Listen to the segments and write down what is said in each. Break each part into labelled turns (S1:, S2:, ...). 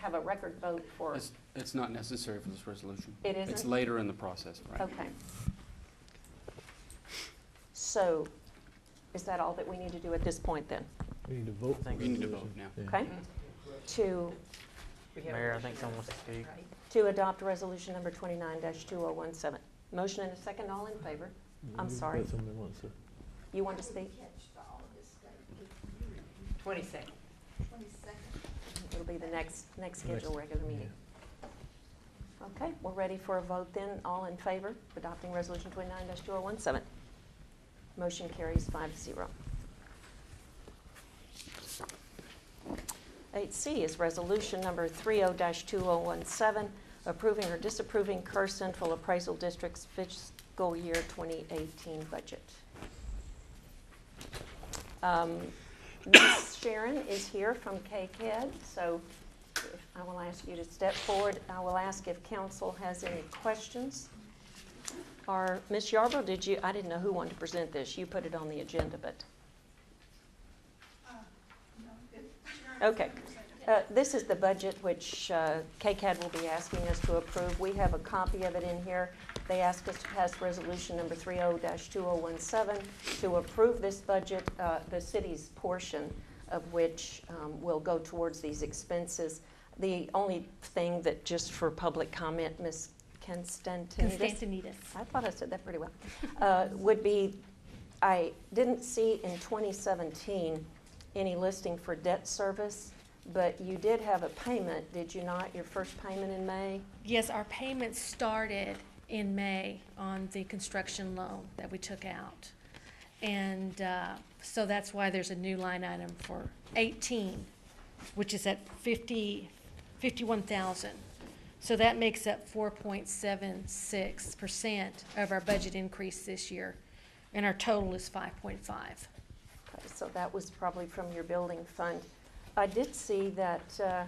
S1: have a record vote for,
S2: It's, it's not necessary for this resolution.
S1: It
S2: It's
S1: isn't?
S2: later in the process, right?
S1: okay. So is that all that we need to do at this point then?
S3: We need to vote. for
S2: You need to
S3: resolution.
S2: vote now.
S3: Yeah.
S1: Okay? To,
S4: Mayor, I think someone wants to speak.
S1: to adopt resolution number twenty-nine two oh one seven. Motion and a second, all in favor? I'm
S3: You've
S1: sorry.
S3: got something that wants to-
S1: You want to speak?
S5: Twenty-second.
S1: It'll be the next, next
S3: The next-
S1: scheduled regular meeting. Okay, we're ready for a vote then. All in favor of adopting Resolution 29-2017? Motion carries five to zero. 8C is Resolution Number 30-2017, approving or disapproving Kerr Central Appraisal District's fiscal year 2018 budget. Um, Ms. Sharon is here from KCAD, so if- I will ask you to step forward. I will ask if council has any questions. Or, Ms. Yarborough, did you, I didn't know who wanted to present this. You put it on the agenda, but. Okay. Uh, This is the budget which uh, KCAD will be asking us to approve. We have a copy of it in here. They asked us to pass resolution number 30-2017 to approve this budget, uh, the city's portion of which um, will go towards these expenses. The only thing that, just for public comment, Ms. Constantinidis, I thought I said that pretty well, uh, would be, I didn't see in 2017 any listing for debt service, but you did have a payment, did you not, your first payment in May?
S6: Yes, our payments started in May on the construction loan that we took out. And uh, so that's why there's a new line item for 18, which is at 50, 51,000. So that makes up 4.76% of our budget increase this year, and our total is 5.5.
S1: Okay, So that was probably from your building fund. I did see that, uh,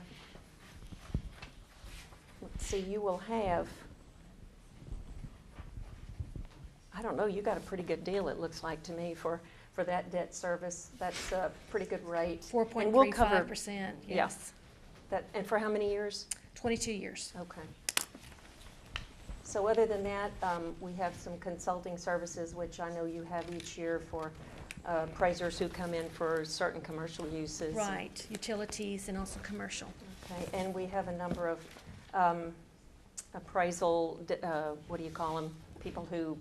S1: let's see, you will have, I don't know, you got a pretty good deal, it looks like to me, for, for that debt service. That's a pretty good rate. And we'll cover-
S6: 4.35%,
S1: yeah.
S6: yes.
S1: That, and for how many years?
S6: 22 years.
S1: Okay. So other than that, um, we have some consulting services, which I know you have each year for uh, appraisers who come in for certain commercial uses.
S6: Right, utilities and also commercial.
S1: Okay, and we have a number of um, appraisal, d- uh, what do you call them? People who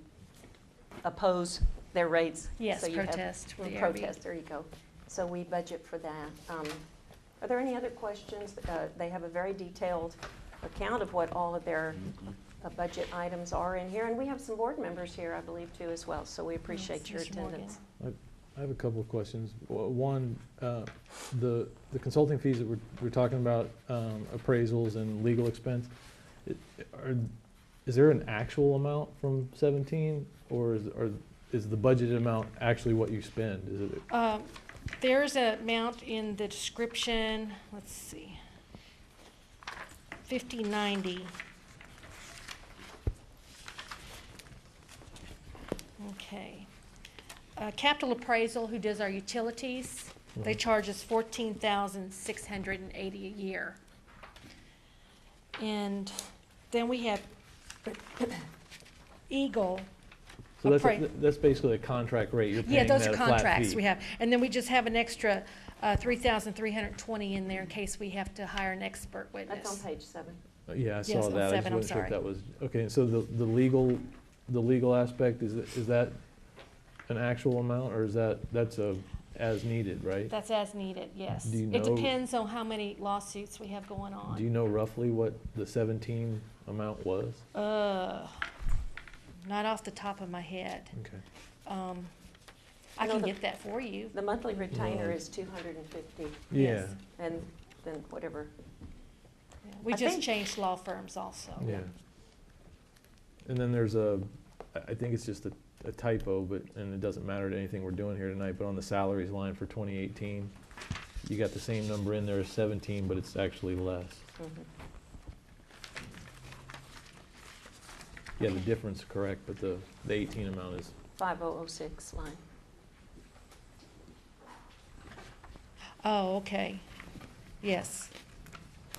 S1: oppose their rates.
S6: Yes,
S1: So you have-
S6: protest for
S1: Mm,
S6: the ARB.
S1: Protest, there you go. So we budget for that. Um, Are there any other questions? Uh, They have a very detailed account of what all of their
S2: Mm-hmm.
S1: uh, budget items are in here, and we have some board members here, I believe, too, as well, so we appreciate
S6: Yes,
S1: your
S6: Mr. Morgan.
S1: attendance.
S3: I have a couple of questions. W- One, uh, the the consulting fees that we're we're talking about, um, appraisals and legal expense, i- are- is there an actual amount from 17? Or is are- is the budgeted amount actually what you spend? Is it
S6: Um, There's a amount in the description, let's see, fifty ninety. Okay. Uh, Capital Appraisal, who does our utilities, they
S3: Mhm.
S6: charge us fourteen thousand six hundred and eighty a year. And then we have Eagle,
S3: So that's,
S6: Appra-
S3: a- that's basically a contract rate, you're
S6: Yeah,
S3: paying that
S6: those
S3: flat
S6: are
S3: fee.
S6: contracts we have. And then we just have an extra uh, 3,320 in there in case we have to hire an expert
S1: That's on
S6: witness.
S1: page seven.
S3: Uh, Yeah, I
S6: Yes,
S3: saw
S6: on
S3: that, I just
S6: seven, I'm
S3: wasn't sure if
S6: sorry.
S3: that was, okay, and so the, the legal, the legal aspect, is, it- is that an actual amount, or is that, that's a as needed, right?
S6: That's as needed, yes.
S3: Do you
S6: It
S3: know-
S6: depends on how many lawsuits we have going
S3: Do you
S6: on.
S3: know roughly what the seventeen amount was?
S6: Uh, Not off the top of my head.
S3: Okay.
S6: Um, I
S1: No,
S6: can
S1: the-
S6: get that for you.
S1: The monthly retainer
S3: Right.
S1: is 250,
S3: Yeah,
S6: Yes.
S1: and then whatever
S6: We
S1: I
S6: just
S1: think-
S6: changed law firms also.
S3: yeah. And then there's a, I, I think it's just a, a typo, but, and it doesn't matter to anything we're doing here tonight, but on the salaries line for twenty eighteen, you got the same number in there as seventeen, but it's actually less.
S1: Mhm.
S3: Yeah, the difference, is correct, but the, the eighteen amount is
S1: 5006 line.
S6: Oh, okay. Yes.